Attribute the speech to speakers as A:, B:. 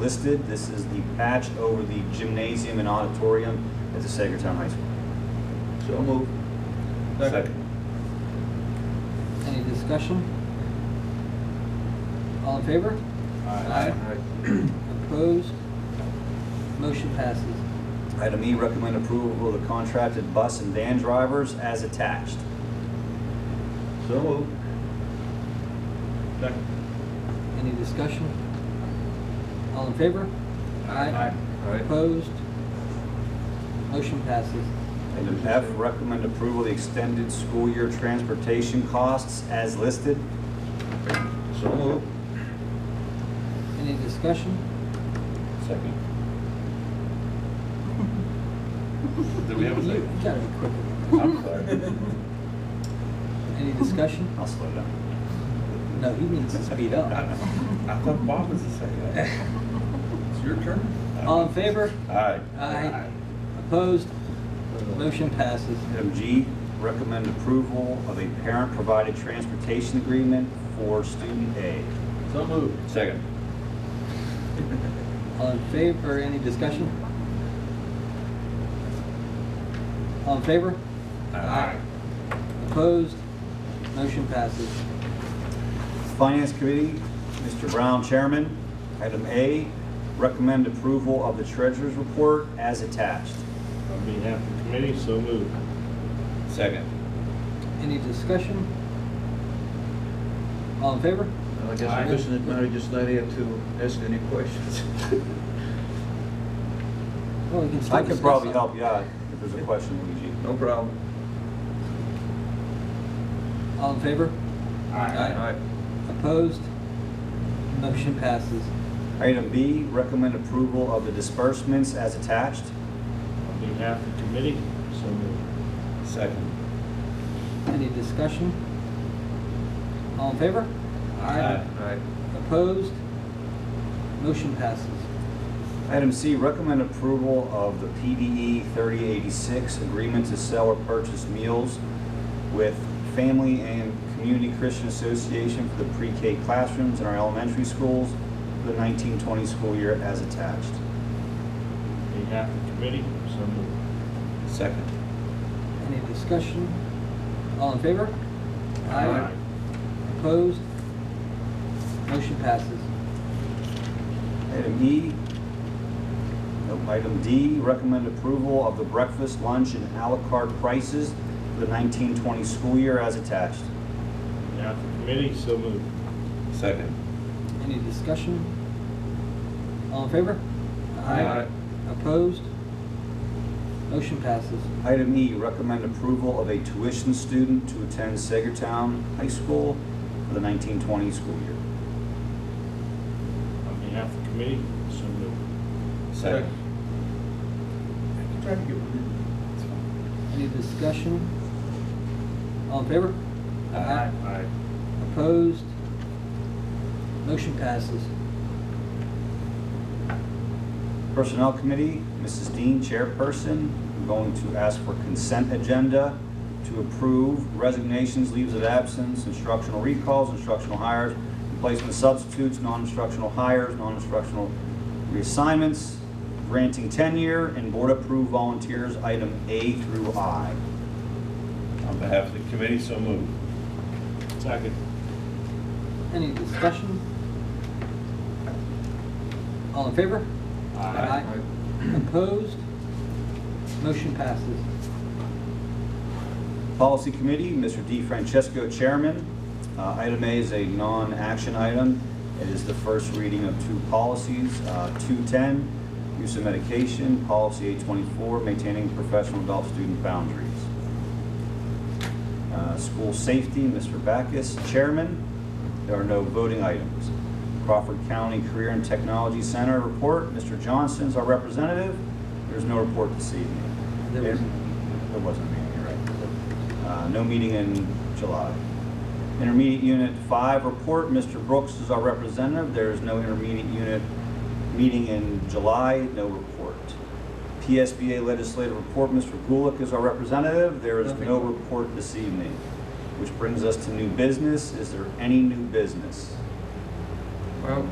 A: listed. This is the patch over the gymnasium and auditorium at the Sagertown High School.
B: So move.
C: Any discussion? All in favor? Aye. Opposed? Motion passes.
A: Item E, recommend approval of the contracted bus and van drivers as attached.
B: So move. Second.
C: Any discussion? All in favor?
B: Aye.
C: Opposed? Motion passes.
A: Item F, recommend approval of the extended school year transportation costs as listed.
B: So move.
C: Any discussion?
A: Second.
D: Do we have a
C: You-
D: second?
C: You gotta be quicker.
D: I'm sorry.
C: Any discussion?
A: I'll slow down.
C: No, he needs to speed up.
D: I thought Bob was the second. It's your turn.
C: All in favor?
D: Aye.
C: Aye. Opposed? Motion passes.
A: Item G, recommend approval of a parent-provided transportation agreement for student aid.
B: So move.
D: Second.
C: All in favor, any discussion? All in favor? Aye. Opposed? Motion passes.
A: Finance Committee, Mr. Brown, Chairman. Item A, recommend approval of the treasurer's report as attached.
E: On behalf of the committee, so moved.
D: Second.
C: Any discussion? All in favor?
B: I guess I'm listening, Mary, just not here to ask any questions.
C: Well, we can still
A: I could
C: discuss
A: probably
C: it.
A: help you out if there's a question, Luigi.
B: No problem.
C: All in favor? Opposed? Motion passes.
A: Item B, recommend approval of the disbursements as attached.
E: On behalf of the committee, so moved.
D: Second.
C: Any discussion? All in favor?
B: Aye.
C: Opposed? Motion passes.
A: Item C, recommend approval of the PDE 3086 agreement to sell or purchase meals with Family and Community Christian Association for the pre-K classrooms in our elementary schools for the 1920 school year as attached.
E: On behalf of the committee, so moved.
D: Second.
C: Any discussion? All in favor?
B: Aye.
C: Opposed? Motion passes.
A: Item E, nope, item D, recommend approval of the breakfast, lunch, and à la carte prices for the 1920 school year as attached.
E: On behalf of the committee, so moved.
D: Second.
C: Any discussion? All in favor?
B: Aye.
C: Opposed? Motion passes.
A: Item E, recommend approval of a tuition student to attend Sagertown High School for the 1920 school year.
E: On behalf of the committee, so moved.
D: Second.
B: Try to get one
C: Any discussion? All in favor?
D: Aye.
E: Aye.
C: Opposed? Motion passes.
A: Personnel Committee, Mrs. Dean, chairperson, I'm going to ask for consent agenda to approve resignations, leaves of absence, instructional recalls, instructional hires, replacement substitutes, non-instructional hires, non-instructional reassignments, granting tenure, and board-approved volunteers, item A through I.
D: On behalf of the committee, so moved.
E: Second.
C: Any discussion? All in favor?
E: Aye.
C: Opposed? Motion passes.
A: Policy Committee, Mr. D. Francesco, Chairman. Uh, Item A is a non-action item. It is the first reading of two policies, uh, 210, use of medication, policy 824, maintaining professional adult-student boundaries. Uh, School Safety, Mr. Backus, Chairman. There are no voting items. Crawford County Career and Technology Center report, Mr. Johnson's our representative. There's no report this evening.
C: There was-
A: There wasn't any, you're right. Uh, No meeting in July. Intermediate Unit 5 report, Mr. Brooks is our representative. There is no intermediate unit meeting in July, no report. PSBA legislative report, Mr. Gulick is our representative. There is
C: Nothing.
A: no report this evening, which brings us to new business. Is there any new business?
B: Well,